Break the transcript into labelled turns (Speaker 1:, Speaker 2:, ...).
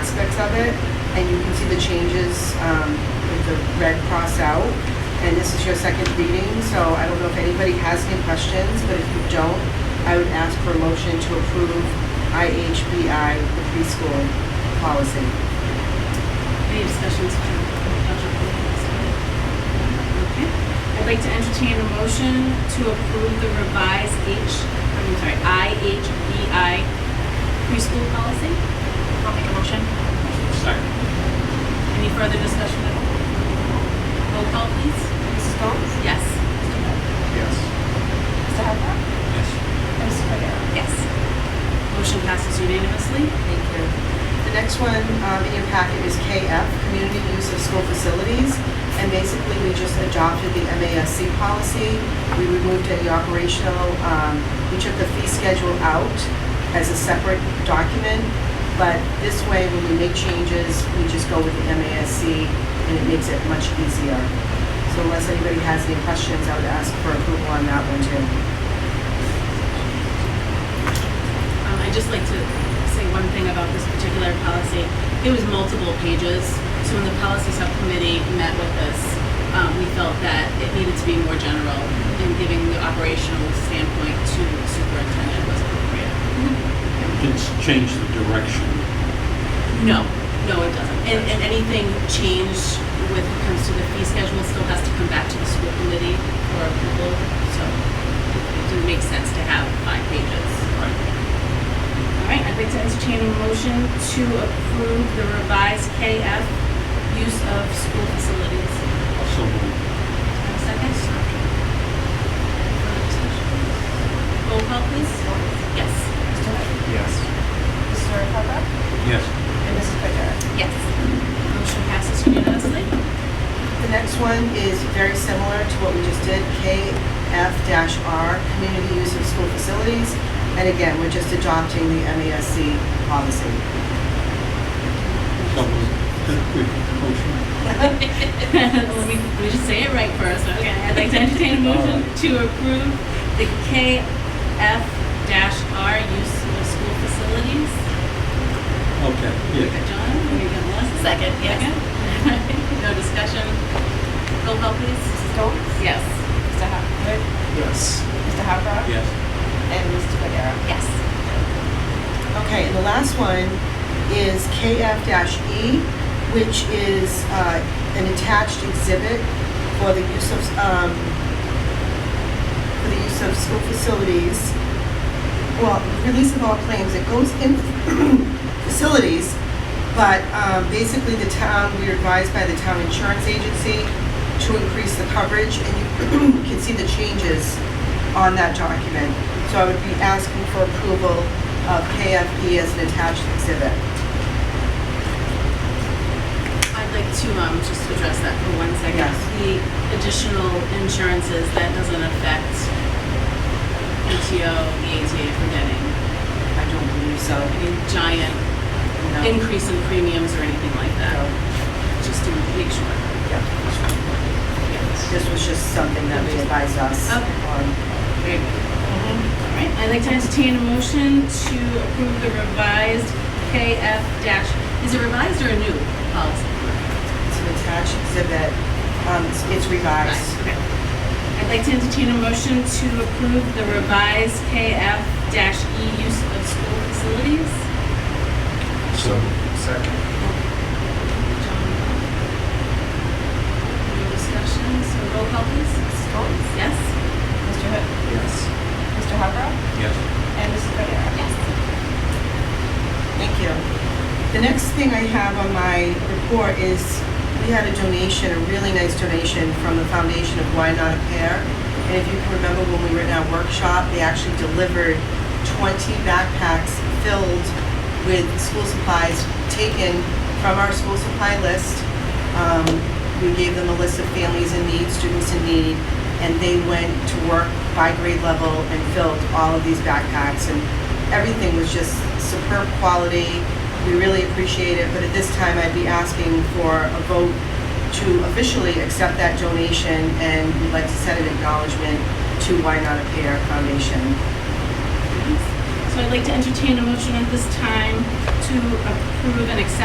Speaker 1: of it, and you can see the changes um, with the red cross out. And this is your second reading, so I don't know if anybody has any questions, but if you don't, I would ask for a motion to approve IHBI, the preschool policy.
Speaker 2: Any discussions from Dr. Okay. I'd like to entertain a motion to approve the revised H, I'm sorry, IHBI preschool policy. I'll make a motion.
Speaker 3: Second.
Speaker 2: Any further discussion at all? Roll call, please.
Speaker 4: Mrs. Gomes?
Speaker 2: Yes.
Speaker 4: Mr. Beck?
Speaker 3: Yes. Yes.
Speaker 4: Mr. Hubback? And Mrs. Cordero?
Speaker 2: Yes. Motion passes unanimously.
Speaker 1: Thank you. The next one um, in your packet is KF, Community Use of School Facilities. And basically, we just adopted the MASC policy. We removed any operational, um, we took the fee schedule out as a separate document. But this way, when we make changes, we just go with the MASC and it makes it much easier. So unless anybody has any questions, I would ask for approval on that one too.
Speaker 2: Um, I'd just like to say one thing about this particular policy. It was multiple pages, so when the policy subcommittee met with us, um, we felt that it needed to be more general, and giving the operational standpoint to the superintendent was appropriate.
Speaker 3: It's changed the direction.
Speaker 2: No, no, it doesn't. And, and anything changed with it comes to the fee schedule still has to come back to the school committee for approval, so it didn't make sense to have five pages. All right,
Speaker 3: Right.
Speaker 2: I'd like to entertain a motion to approve the revised KF use of school facilities.
Speaker 3: Also moved.
Speaker 2: Have a Second? Roll call, please. Yes.
Speaker 4: Mr. Beck?
Speaker 3: Yes.
Speaker 4: Mr. Hubback?
Speaker 3: Yes.
Speaker 4: And Mrs. Cordero?
Speaker 2: Yes. Motion passes unanimously.
Speaker 1: The next one is very similar to what we just did, KF-R, Community Use of School Facilities. And again, we're just adopting the MASC policy.
Speaker 3: So moved. Good motion.
Speaker 2: Let me, let me just say it right first, okay? I'd like to entertain a motion to approve the KF R use of school facilities.
Speaker 3: Okay,
Speaker 2: Got
Speaker 3: yeah.
Speaker 2: John, we got Melissa. Second, yes. No discussion. Roll call, please.
Speaker 4: Mrs. Gomes?
Speaker 2: Yes.
Speaker 4: Mr. Hubback?
Speaker 3: Yes.
Speaker 4: Mr. Hubback?
Speaker 3: Yes.
Speaker 4: And Mr. Cordero?
Speaker 2: Yes.
Speaker 1: Okay, and the last one is KF-E, which is uh, an attached exhibit for the use of, um, for the use of school facilities. Well, release of all claims, it goes in facilities, but um, basically the town, we are advised by the town insurance agency to increase the coverage, and you can see the changes on that document. So I would be asking for approval of KFP as an attached exhibit.
Speaker 2: I'd like to um, just address that for one second.
Speaker 1: Yes.
Speaker 2: The additional insurances, that doesn't affect PTO, EAT, if we're getting
Speaker 1: I don't believe so.
Speaker 2: any giant
Speaker 1: No.
Speaker 2: increase in premiums or anything like
Speaker 1: No.
Speaker 2: that. Just to make sure.
Speaker 1: Yeah.
Speaker 2: Yes.
Speaker 1: This was just something that they advised us
Speaker 2: Okay.
Speaker 1: on.
Speaker 2: Very good. All right, I'd like to entertain a motion to approve the revised KF dash, is it revised or a new policy?
Speaker 1: It's an attached exhibit. Um, it's- It's revised.
Speaker 2: Okay. I'd like to entertain a motion to approve the revised KF dash E use of school facilities.
Speaker 3: So Second.
Speaker 2: John? No discussion, so roll call please.
Speaker 4: Mrs. Gomes?
Speaker 2: Yes?
Speaker 4: Mr. Hubback?
Speaker 3: Yes.
Speaker 4: Mr. Hubback?
Speaker 3: Yes.
Speaker 4: And Mrs. Cordero?
Speaker 2: Yes.
Speaker 1: Thank you. The next thing I have on my report is, we had a donation, a really nice donation from the foundation of Why Not a Pair. And if you can remember when we were in our workshop, they actually delivered 20 backpacks filled with school supplies taken from our school supply list. Um, We gave them a list of families in need, students in need, and they went to work by grade level and filled all of these backpacks. And everything was just superb quality. We really appreciate it, but at this time, I'd be asking for a vote to officially accept that donation, and we'd like to send an acknowledgement to Why Not a Pair Foundation.
Speaker 2: So I'd like to entertain a motion at this time to approve and accept